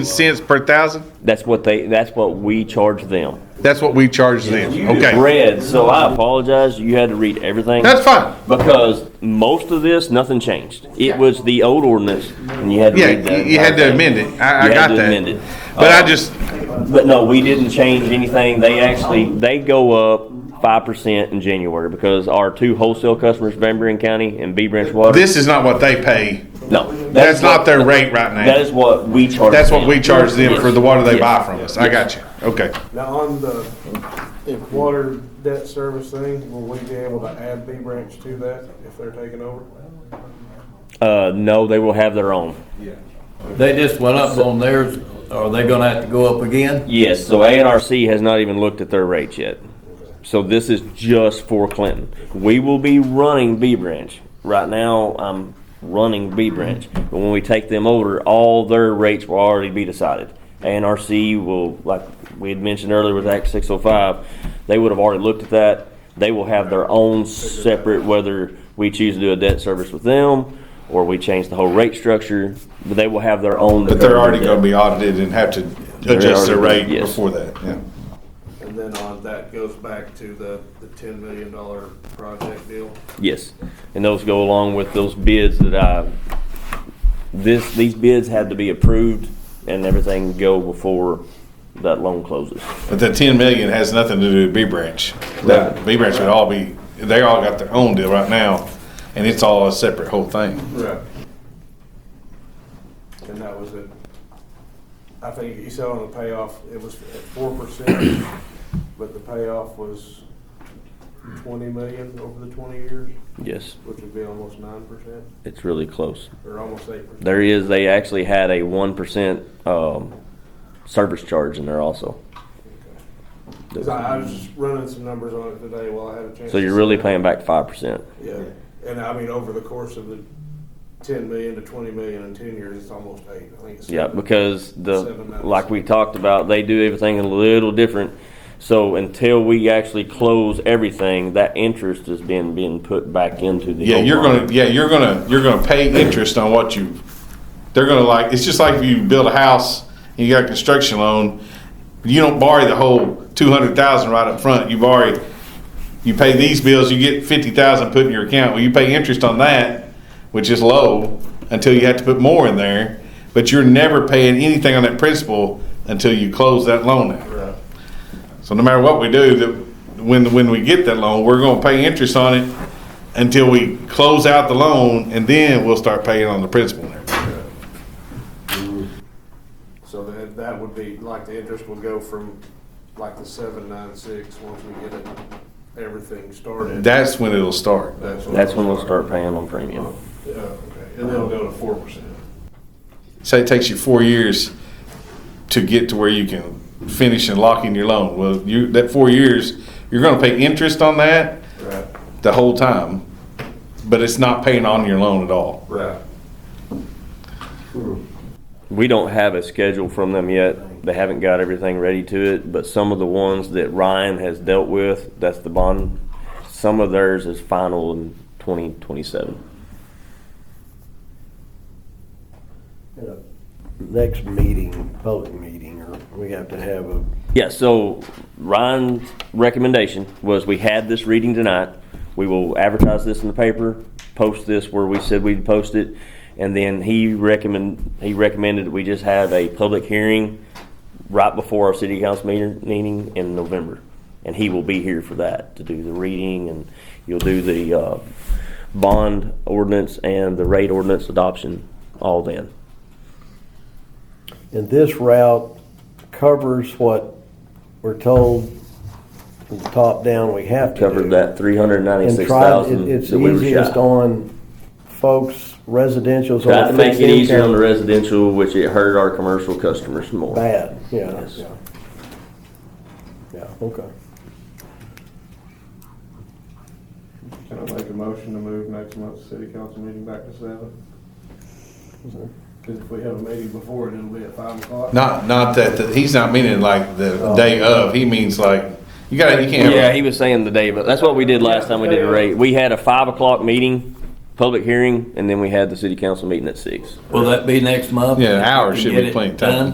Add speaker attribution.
Speaker 1: cents per thousand?
Speaker 2: That's what they, that's what we charge them.
Speaker 1: That's what we charge them, okay?
Speaker 2: Red, so I apologize, you had to read everything.
Speaker 1: That's fine.
Speaker 2: Because most of this, nothing changed. It was the old ordinance, and you had to
Speaker 1: Yeah,
Speaker 2: read that.
Speaker 1: you- you had to
Speaker 2: entire thing.
Speaker 1: amend it. I, I
Speaker 2: You had
Speaker 1: got
Speaker 2: to
Speaker 1: that.
Speaker 2: amend it.
Speaker 1: But I
Speaker 2: Uh,
Speaker 1: just,
Speaker 2: But no, we didn't change anything. They actually, they go up five percent in January because our two wholesale customers, Van Buren County and B Branch Water.
Speaker 1: this is not what they pay.
Speaker 2: No.
Speaker 1: That's
Speaker 2: what-
Speaker 1: not their rate right now.
Speaker 2: That is what we charge.
Speaker 1: That's what
Speaker 2: them.
Speaker 1: we charge them for the water they
Speaker 2: Yes.
Speaker 1: buy from us. I
Speaker 2: Yes.
Speaker 1: got you. Okay.
Speaker 3: Now, on the, if water debt service thing, will we be able to add B branch to that if they're taking over?
Speaker 2: Uh, no, they will have their own.
Speaker 4: They just went up on theirs, are they gonna have to go up again?
Speaker 2: Yes, so ANRC has not even looked at their rates yet. So this is just for Clinton. We will be running B Branch. Right now, I'm running B Branch. But when we take them over, all their rates will already be decided. ANRC will, like we had mentioned earlier with Act 605, they would have already looked at that. They will have their own separate, whether we choose to do a debt service with them or we change the whole rate structure, but they will have their own.
Speaker 1: But they're already gonna be audited and have to adjust their
Speaker 2: already-
Speaker 1: rate
Speaker 2: yes.
Speaker 1: before that, yeah.
Speaker 3: And then on, that goes back to the, the ten million dollar project deal.
Speaker 2: Yes, and those go along with those bids that I, this, these bids had to be approved and everything go before that loan closes.
Speaker 1: But the ten million has nothing to do with B Branch. That, B Branch would all be, they all got their own deal right now, and it's all a separate whole thing.
Speaker 3: Right. And that was it. I think you said on the payoff, it was at four percent, but the payoff was twenty million over the twenty years,
Speaker 2: Yes,
Speaker 3: which would be almost nine percent,
Speaker 2: it's really close.
Speaker 3: or almost eight percent.
Speaker 2: There is, they actually had a one percent, um, service charge in there also.
Speaker 3: Cause I I was just running some numbers on it today while I had a chance.
Speaker 2: So
Speaker 3: to
Speaker 2: you're
Speaker 3: sit
Speaker 2: really
Speaker 3: down.
Speaker 2: paying back five percent.
Speaker 3: Yeah, and I mean, over the course of the ten million to twenty million in ten years, it's almost eight, I think it's.
Speaker 2: Yeah,
Speaker 3: seven.
Speaker 2: because the,
Speaker 3: Seven minutes.
Speaker 2: like we talked about, they do everything a little different. So until we actually close everything, that interest is being, being put back into the.
Speaker 1: Yeah,
Speaker 2: whole
Speaker 1: you're
Speaker 2: loan.
Speaker 1: gonna, yeah, you're gonna, you're gonna pay interest on what you, they're gonna like, it's just like if you build a house, and you got a construction loan, you don't borrow the whole two hundred thousand right up front, you borrow, you pay these bills, you get fifty thousand put in your account, well, you pay interest on that, which is low, until you have to put more in there, but you're never paying anything on that principal until you close that loan out.
Speaker 3: Right.
Speaker 1: So no matter what we do, that when when we get that loan, we're gonna pay interest on it until we close out the loan, and then we'll start paying on the principal. and everything.
Speaker 3: So that, that would be, like, the interest would go from, like, the seven, nine, six, once we get it, everything started.
Speaker 1: That's when it'll start.
Speaker 2: That's when we'll start paying on premium.
Speaker 3: Yeah, okay, and then it'll go to four percent.
Speaker 1: Say it takes you four years to get to where you can finish and lock in your loan. Well, you that four years, you're gonna pay interest on that
Speaker 3: Right,
Speaker 1: the whole time, but it's not paying on your loan at all.
Speaker 3: right.
Speaker 2: We don't have a schedule from them yet. They haven't got everything ready to it, but some of the ones that Ryan has dealt with, that's the bond, some of theirs is final in twenty twenty-seven.
Speaker 5: At a Next meeting, public meeting, or we have to have a,
Speaker 2: Yeah, so Ryan's recommendation was we had this reading tonight. We will advertise this in the paper, post this where we said we'd post it. And then he recommend, he recommended that we just have a public hearing right before our city council meeting, meeting in November. And he will be here for that, to do the reading and you'll do the, uh, bond ordinance and the rate ordinance adoption all then.
Speaker 5: and this route covers what we're told from the top down we have to do.
Speaker 2: Covered that three hundred and
Speaker 5: And
Speaker 2: ninety-six
Speaker 5: try- it-
Speaker 2: thousand that we were
Speaker 5: It's easiest
Speaker 2: shy.
Speaker 5: on folks, residential's
Speaker 2: Tried to
Speaker 5: on
Speaker 2: make
Speaker 5: fixed
Speaker 2: it easier on the
Speaker 5: income.
Speaker 2: residential, which it hurt our commercial customers more.
Speaker 5: Bad, yeah,
Speaker 2: Yes.
Speaker 5: yeah. Yeah, okay.
Speaker 3: Can I make a motion to move next month's city council meeting back to seven? Cause if we have a meeting before it, it'll be at five o'clock.
Speaker 1: Not not that the, he's not meaning like the day of. He means like you got to you can't.
Speaker 2: Oh. Yeah, he was saying the day, but that's what we did last time we did a rate. We had a five o'clock meeting, public hearing, and then we had the city council meeting at six.
Speaker 4: Will that be next month?
Speaker 1: Yeah, hours
Speaker 4: Can
Speaker 1: should
Speaker 4: get
Speaker 1: be
Speaker 4: it
Speaker 1: plenty of time.
Speaker 4: done?